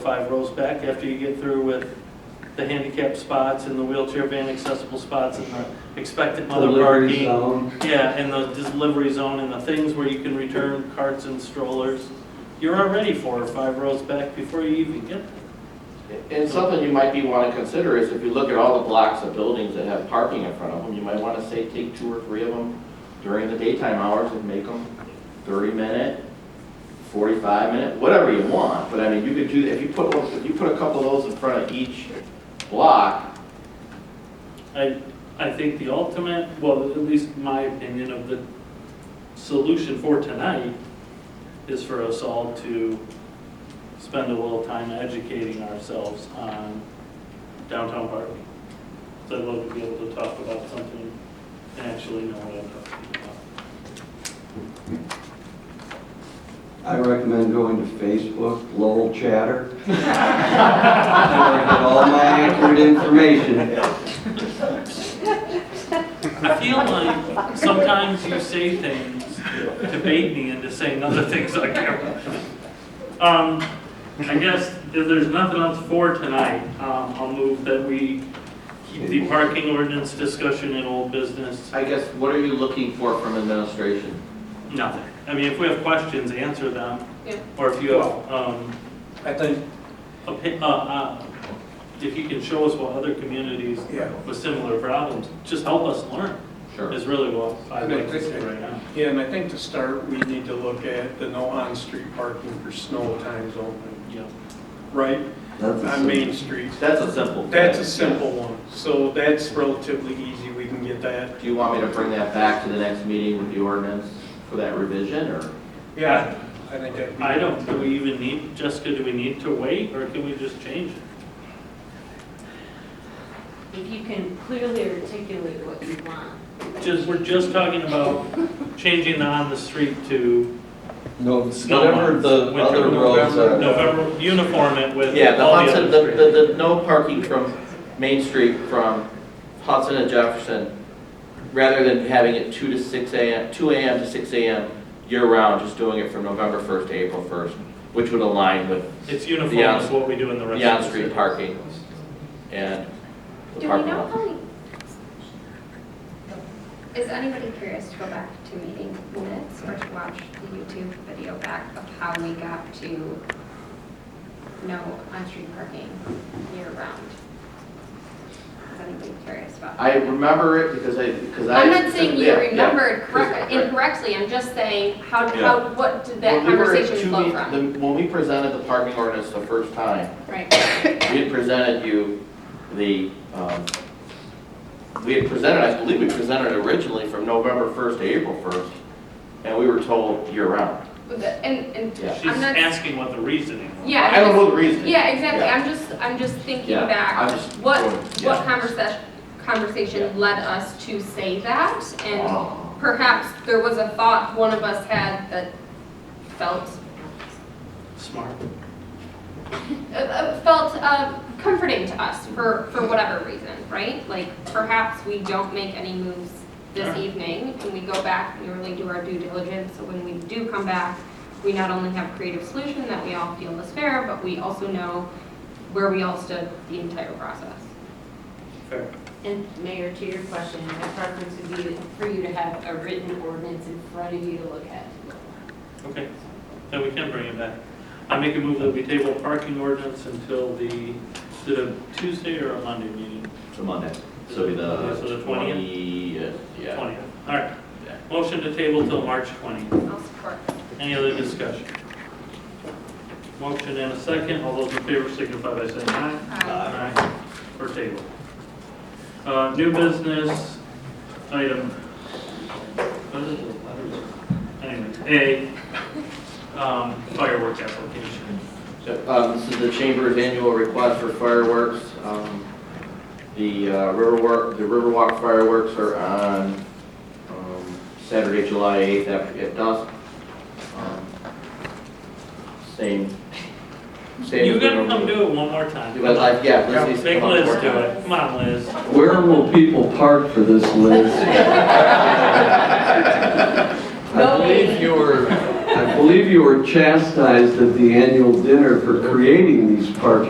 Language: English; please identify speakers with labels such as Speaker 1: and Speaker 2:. Speaker 1: five rows back after you get through with the handicap spots and the wheelchair van accessible spots and the expected mother parking.
Speaker 2: Delivery zone.
Speaker 1: Yeah, and the delivery zone and the things where you can return carts and strollers. You're already four or five rows back before you even get there.
Speaker 3: And something you might be want to consider is if you look at all the blocks of buildings that have parking in front of them, you might want to say, take two or three of them during the daytime hours and make them 30-minute, 45-minute, whatever you want. But I mean, you could do, if you put, one- if you put a couple of those in front of each block,
Speaker 1: I, I think the ultimate, well, at least my opinion of the solution for tonight is for us all to spend a little time educating ourselves on downtown parking. So I'd love to be able to talk about something and actually know what I'm talking about.
Speaker 2: I recommend going to Facebook, Lowell Chatter. Where I get all my accurate information.
Speaker 1: I feel like sometimes you say things to bait me into saying other things on camera. Um, I guess if there's nothing else for tonight, um, I'll move that we keep the parking ordinance discussion in old business.
Speaker 3: I guess, what are you looking for from administration?
Speaker 1: Nothing. I mean, if we have questions, answer them.
Speaker 4: Yeah.
Speaker 1: Or if you have, um,
Speaker 5: I think,
Speaker 1: opi- uh, uh, if you can show us what other communities
Speaker 5: yeah,
Speaker 1: with similar problems, just help us learn
Speaker 3: Sure.
Speaker 1: is really what I'd like to say right now.
Speaker 5: yeah, and I think to start, we need to look at the no on-street parking for snow times only,
Speaker 1: Yeah.
Speaker 5: right?
Speaker 2: That's a
Speaker 5: On Main Street.
Speaker 3: That's a simple.
Speaker 5: That's a simple one, so that's relatively easy, we can get that.
Speaker 3: Do you want me to bring that back to the next meeting with the ordinance for that revision, or?
Speaker 5: Yeah, I think that'd be.
Speaker 1: I don't, do we even need, Jessica, do we need to wait, or can we just change it?
Speaker 4: If you can clearly articulate what you want.
Speaker 1: Just, we're just talking about changing the on the street to
Speaker 6: No,
Speaker 1: Snow
Speaker 6: whatever
Speaker 1: months,
Speaker 6: the
Speaker 1: winter,
Speaker 6: other roads are.
Speaker 1: November, uniform it with
Speaker 3: Yeah, the
Speaker 1: all the
Speaker 3: Hudson, the,
Speaker 1: other streets.
Speaker 3: the, the no parking from Main Street from Hudson and Jefferson, rather than having it two to six AM, two AM to six AM year-round, just doing it from November first to April first, which would align with
Speaker 1: It's uniform
Speaker 3: The on-
Speaker 1: is what we do in the rest
Speaker 3: the
Speaker 1: of the city.
Speaker 3: on-street parking and the
Speaker 7: Do we
Speaker 3: parking
Speaker 7: know
Speaker 3: lot.
Speaker 7: how many? Is anybody curious to go back to meeting minutes or to watch the YouTube video back of how we got to no on-street parking year-round? Is anybody curious about? that?
Speaker 3: I remember it because I, because I.
Speaker 7: I'm not saying you
Speaker 3: yeah, yeah.
Speaker 7: remembered
Speaker 3: Right.
Speaker 7: correct- incorrectly, I'm just saying, how,
Speaker 3: Yeah.
Speaker 7: how, what did that
Speaker 3: When we were at
Speaker 7: conversation
Speaker 3: two
Speaker 7: flow
Speaker 3: meet-
Speaker 7: from?
Speaker 3: the- When we presented the parking ordinance the first time,
Speaker 7: Right.
Speaker 3: We had presented you the, um, we had presented, I believe we presented originally from November 1st to April 1st, and we were told year-round.
Speaker 7: With the- And, and
Speaker 3: Yeah.
Speaker 7: I'm
Speaker 1: She's
Speaker 7: not.
Speaker 1: asking what the reasoning was.
Speaker 7: Yeah.
Speaker 3: I don't know the reason.
Speaker 7: Yeah, exactly,
Speaker 3: Yeah.
Speaker 7: I'm just, I'm just thinking
Speaker 3: Yeah, I'm
Speaker 7: back,
Speaker 3: just
Speaker 7: what,
Speaker 3: going-
Speaker 7: what
Speaker 3: yeah.
Speaker 7: conversation,
Speaker 3: Yeah.
Speaker 7: conversation led us to say that? And
Speaker 3: Oh.
Speaker 7: perhaps there was a thought one of us had that felt,
Speaker 1: Smart.
Speaker 7: uh, uh, felt uh, comforting to us for, for whatever reason, right? Like, perhaps we don't make any moves this
Speaker 1: Sure.
Speaker 7: evening, and we go back and we really do our due diligence, so when we do come back, we not only have creative solution that we all feel is fair, but we also know where we all stood the entire process.
Speaker 1: Fair.
Speaker 4: And Mayor, to your question, my preference would be for you to have a written ordinance in front of you to look at.
Speaker 1: Okay, then we can bring it back. I make a move that we table parking ordinance until the, is it a Tuesday or a Monday meeting?
Speaker 3: It's a Monday, so it'll be
Speaker 1: Yeah,
Speaker 3: the.
Speaker 1: so the 20th?
Speaker 3: 20, uh, Yeah.
Speaker 1: Twentieth. All right.
Speaker 3: Yeah.
Speaker 1: Motion to table till March twentieth.
Speaker 7: I'll support.
Speaker 1: Any other discussion? Motion and a second, all those in favor signify by saying aye. Aye. For table. Uh, New business item. What is it? Letters? Anyway, A, um, firework application.
Speaker 3: So, um, This is the Chamber's annual request for fireworks. Um, The uh, Riverwalk, the Riverwalk fireworks are on um, Saturday, July 8th after at dusk. Um, Same, same.
Speaker 1: You gotta come do it one more time.
Speaker 3: Because I- uh, Yeah, Liz needs to
Speaker 1: Make
Speaker 3: come up
Speaker 1: Liz
Speaker 3: for
Speaker 1: do it, come on, Liz.
Speaker 2: Where will people park for this, Liz? I believe you were, I believe you were chastised at the annual dinner for creating these parking